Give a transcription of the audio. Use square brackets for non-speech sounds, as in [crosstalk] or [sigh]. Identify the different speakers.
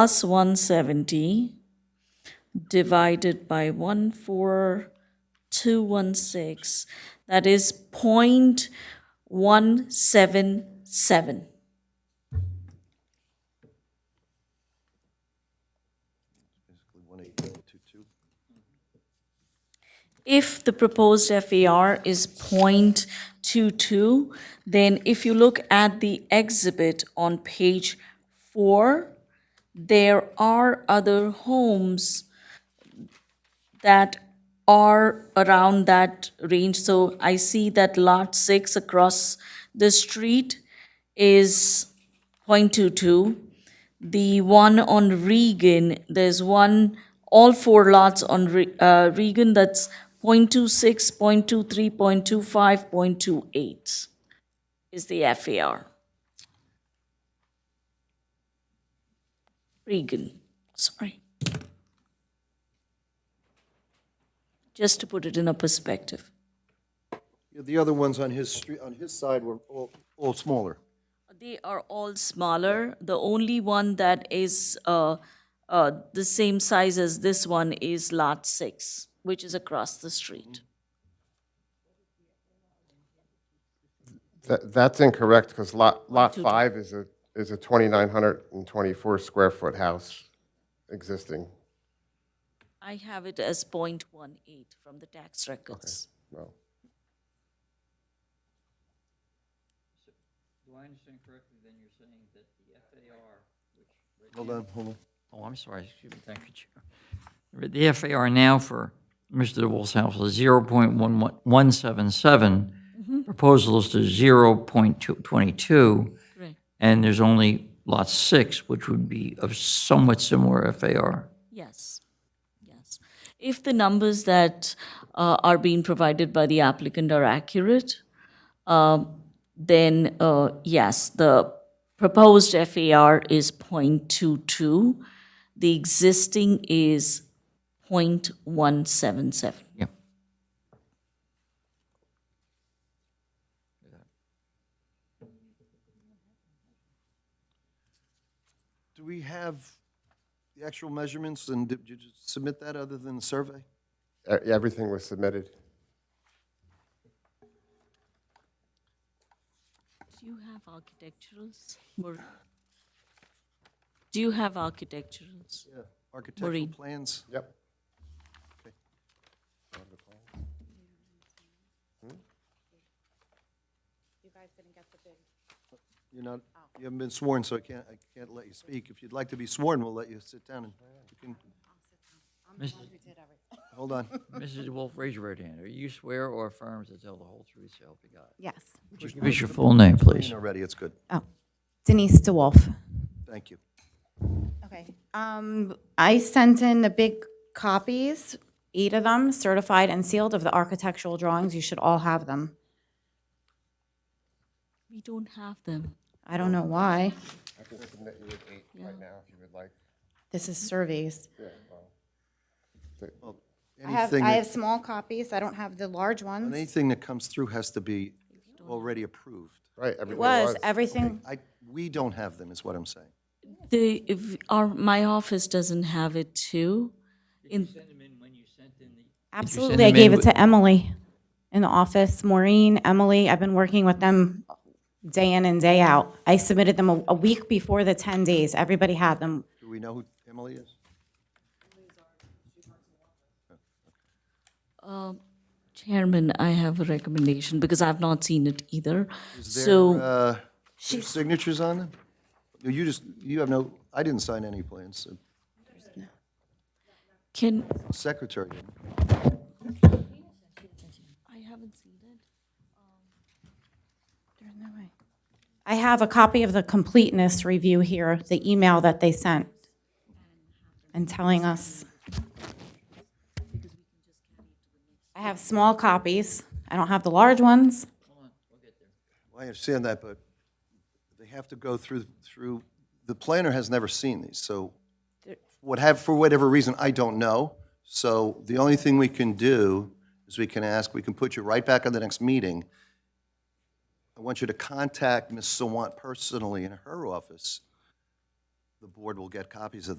Speaker 1: plus 170 divided by 14216, that is 0.177. If the proposed FAR is 0.22, then if you look at the exhibit on page four, there are other homes that are around that range. So I see that lot six across the street is 0.22. The one on Regan, there's one, all four lots on Re- uh, Regan, that's 0.26, 0.23, 0.25, 0.28 is the FAR. Regan, sorry. Just to put it in a perspective.
Speaker 2: Yeah, The other ones on his street, on his side were all, all smaller.
Speaker 1: They are all smaller. The only one that is uh, uh, the same size as this one is Lot 6, which is across the street.
Speaker 3: That, that's incorrect, because lot, lot five is a, is a 2,924 square foot house existing.
Speaker 1: I have it as 0.18 from the tax records.
Speaker 3: Well,
Speaker 4: Do I understand correctly, then you're saying that the FAR, which,
Speaker 2: Hold on, hold on.
Speaker 4: oh, I'm sorry, excuse me, thank you, Chair. The FAR now for Mr. DeWolf's house is zero point one one, one seven seven. Proposal is to zero point two, twenty-two,
Speaker 1: Right.
Speaker 4: and there's only lot six, which would be of somewhat similar FAR.
Speaker 1: Yes, yes. If the numbers that uh, are being provided by the applicant are accurate, um, then uh, yes, the proposed FAR is 0.22. The existing is 0.177.
Speaker 4: Yeah.
Speaker 2: Do we have the actual measurements and did did you submit that other than the survey?
Speaker 3: e- Everything was submitted.
Speaker 1: Do you have architecturals? Maureen? Do you have architecturals?
Speaker 2: Yeah. Architectural
Speaker 1: Maureen.
Speaker 2: plans?
Speaker 3: Yep.
Speaker 2: You're not,
Speaker 5: Oh.
Speaker 2: you haven't been sworn, so I can't, I can't let you speak. If you'd like to be sworn, we'll let you sit down and you can,
Speaker 4: Mrs.
Speaker 2: hold on.
Speaker 4: Mrs. DeWolf, raise your right hand. Are you swear or affirm to tell the whole truth, so help you God?
Speaker 5: [laughs] Yes.
Speaker 4: Would you Give us your full name, please.
Speaker 2: [laughs] You're ready, it's good.
Speaker 5: Oh, Denise DeWolf.
Speaker 2: Thank you.
Speaker 5: Okay. Um, I sent in the big copies, eight of them, certified and sealed of the architectural drawings. You should all have them.
Speaker 1: We don't have them.
Speaker 5: I don't know why.
Speaker 3: I can submit you with eight right now, if you would like.
Speaker 5: This is surveys. I have,
Speaker 2: Anything
Speaker 5: I
Speaker 2: that-
Speaker 5: have small copies. I don't have the large
Speaker 2: and
Speaker 5: ones.
Speaker 2: Anything that comes through has to be already approved.
Speaker 3: Right, everything
Speaker 5: Was
Speaker 3: was.
Speaker 5: everything,
Speaker 2: I, we don't have them, is what I'm saying.
Speaker 1: The, if, our, my office doesn't have it too. In,
Speaker 5: absolutely. I gave it to Emily in the office, Maureen, Emily. I've been working with them day in and day out. I submitted them a, a week before the 10 days. Everybody had them.
Speaker 2: Do we know who Emily is?
Speaker 1: Chairman, I have a recommendation because I've not seen it either.
Speaker 2: Is
Speaker 1: So.
Speaker 2: there, uh, there's signatures on them? You just, you have no, I didn't sign any plans. so
Speaker 1: Can,
Speaker 2: Secretary,
Speaker 1: I haven't seen it.
Speaker 5: I have a copy of the completeness review here, the email that they sent, and telling us. I have small copies. I don't have the large ones.
Speaker 2: Well, I understand that, but they have to go through, through, the planner has never seen these, so what have, for whatever reason, I don't know. So the only thing we can do is we can ask, we can put you right back on the next meeting. I want you to contact Ms. Sawant personally in her office the board will get copies of